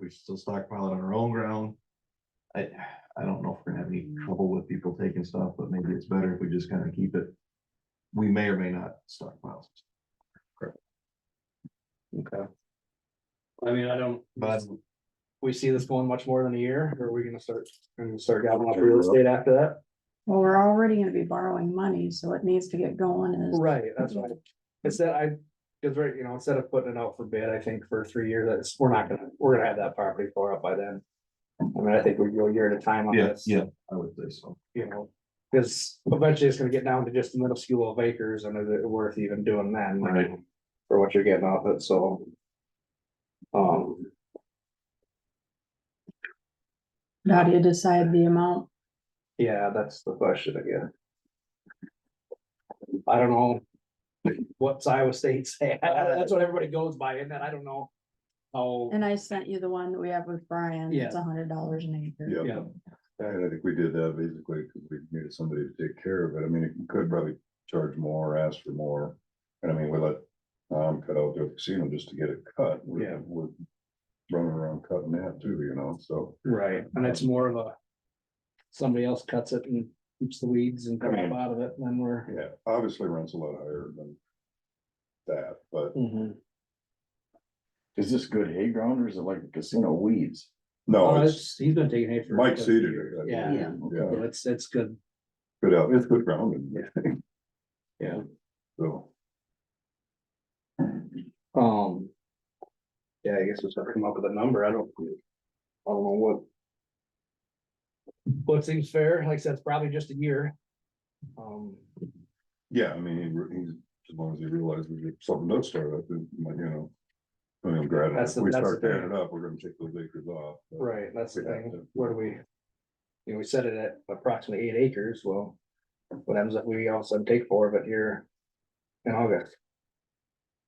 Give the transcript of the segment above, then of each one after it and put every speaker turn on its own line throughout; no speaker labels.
we should still stockpile it on our own ground. I, I don't know if we're gonna have any trouble with people taking stuff, but maybe it's better if we just kind of keep it. We may or may not stockpile,
Okay. I mean, I don't,
but
we see this going much more than a year, or are we gonna start, and start gobbling up real estate after that?
Well, we're already gonna be borrowing money, so it needs to get going as,
Right, that's right. Instead, I, cause right, you know, instead of putting it out for bid, I think for three years, that's, we're not gonna, we're gonna have that property tore up by then. I mean, I think we go a year at a time on
yeah,
this.
yeah, I would say so.
You know, cause eventually it's gonna get down to just a minuscule of acres and is it worth even doing then?
Right.
For what you're getting off it, so. Um,
how do you decide the amount?
Yeah, that's the question again. I don't know. What's Iowa State say? That's what everybody goes by, and then I don't know. Oh,
And I sent you the one that we have with Brian, it's a hundred dollars an acre.
Yeah,
yeah,
and I think we did that basically because we needed somebody to take care of it. I mean, it could probably charge more, ask for more. And I mean, we let Tom cut out the casino just to get it cut. We're-
Yeah.
We're running around cutting that too, you know, so.
right, and it's more of a. Somebody else cuts it and keeps the weeds and come up out of it, and then we're.
Yeah, obviously rents a lot higher than that, but
Mhm.
Is this good hay ground or is it like casino weeds?
no,
Oh,
it's,
it's, he's been taking hay for.
Mike seeded it. I think.
Yeah,
yeah,
yeah, it's, it's good.
good, out- it's good grounding.
Yeah.
So,
Um. Yeah, I guess we should come up with a number, I don't. I don't know what. What seems fair, like I said, it's probably just a year. Um,
yeah, I mean, he- he's, as long as he realizes we get something does start up, then, like, you know. I mean, granted,
That's
if
the-
we
that's the
start tearing
thing.
it up, we're gonna take those acres off. but-
right, that's the
We'd have
thing,
to-
where do we? You know, we set it at approximately eight acres, well, what happens if we all of a sudden take four of it here in August?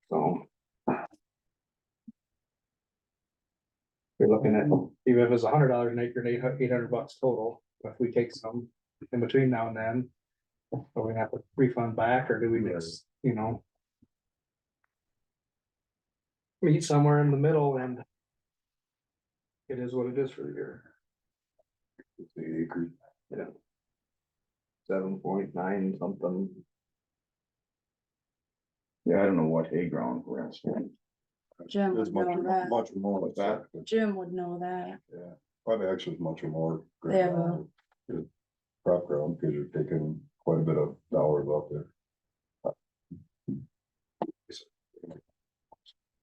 So. You're looking at,
Mm-hmm.
even if it's a hundred dollars an acre, eight hundred bucks total, if we take some in between now and then. Are we gonna have to refund back, or do we just, you know? Meet somewhere in the middle and. It is what it is for the year,
Eight acres.
seven point nine something,
Yeah, I don't know what hay ground we're in.
Jim
It's
would know
much,
that,
much more like that, but
Jim would know that,
yeah, probably actually it's much more.
They have
ground, good Crop ground, because you're taking quite a bit of dollars out there.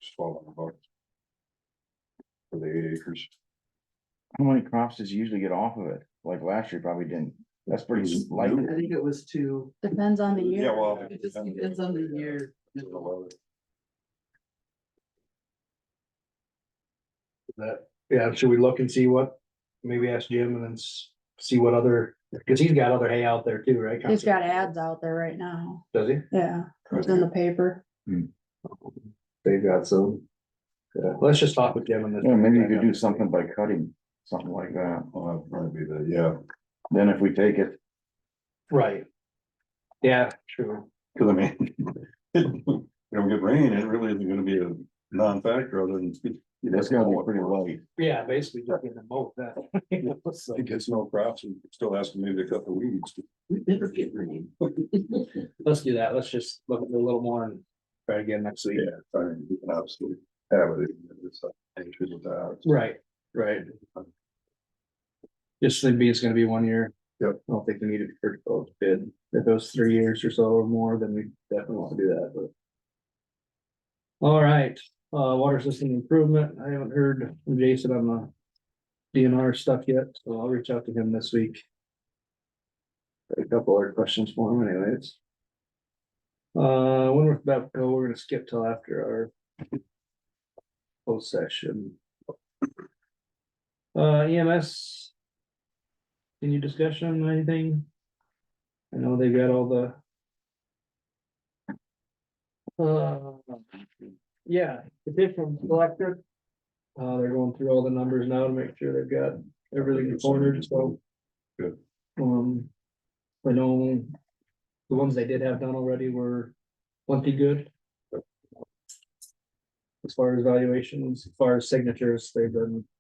Swallowing about. For the eight acres,
How many crops does you usually get off of it? Like last year probably didn't. That's pretty
It's
light.
new.
I think it was two.
depends on the
Yeah,
year.
well,
It just depends on the year.
that, yeah, should we look and see what, maybe ask Jim and then s- see what other, cause he's got other hay out there too, right?
He's got ads out there right now,
Does he?
yeah, it's in the paper.
They've got some. Yeah, let's just talk with Jim and then.
Yeah, maybe you could do something by cutting, something like that.
Well, that'd probably be the, yeah,
Then if we take it,
Right. Yeah, true,
cause I mean. You don't get rain, it really isn't gonna be a non-factor other than.
that's gonna be pretty light.
yeah, basically just getting them both that. So,
It gets no crops and still has to maybe cut the weeds.
We better get rain.
Let's do that, let's just look at it a little more and try again next week.
Yeah, I mean, you can absolutely have it. It's like, it's with that.
Right, right. Just think it's gonna be one year.
Yep.
I don't think we need it for both bid. If it was three years or so or more, then we definitely want to do that, but. All right, uh, water system improvement. I haven't heard from Jason on the DNR stuff yet, so I'll reach out to him this week. Got A couple other questions for him anyways. Uh, when we're about to go, we're gonna skip till after our closed session. Uh, EMS. Any discussion, on anything? I know they got all the. Uh, yeah, additional electric. Uh, they're going through all the numbers now to make sure they've got everything cornered, so.
Good.
Um, I know the ones they did have done already were plenty good. As far as valuations, as far as signatures, they've been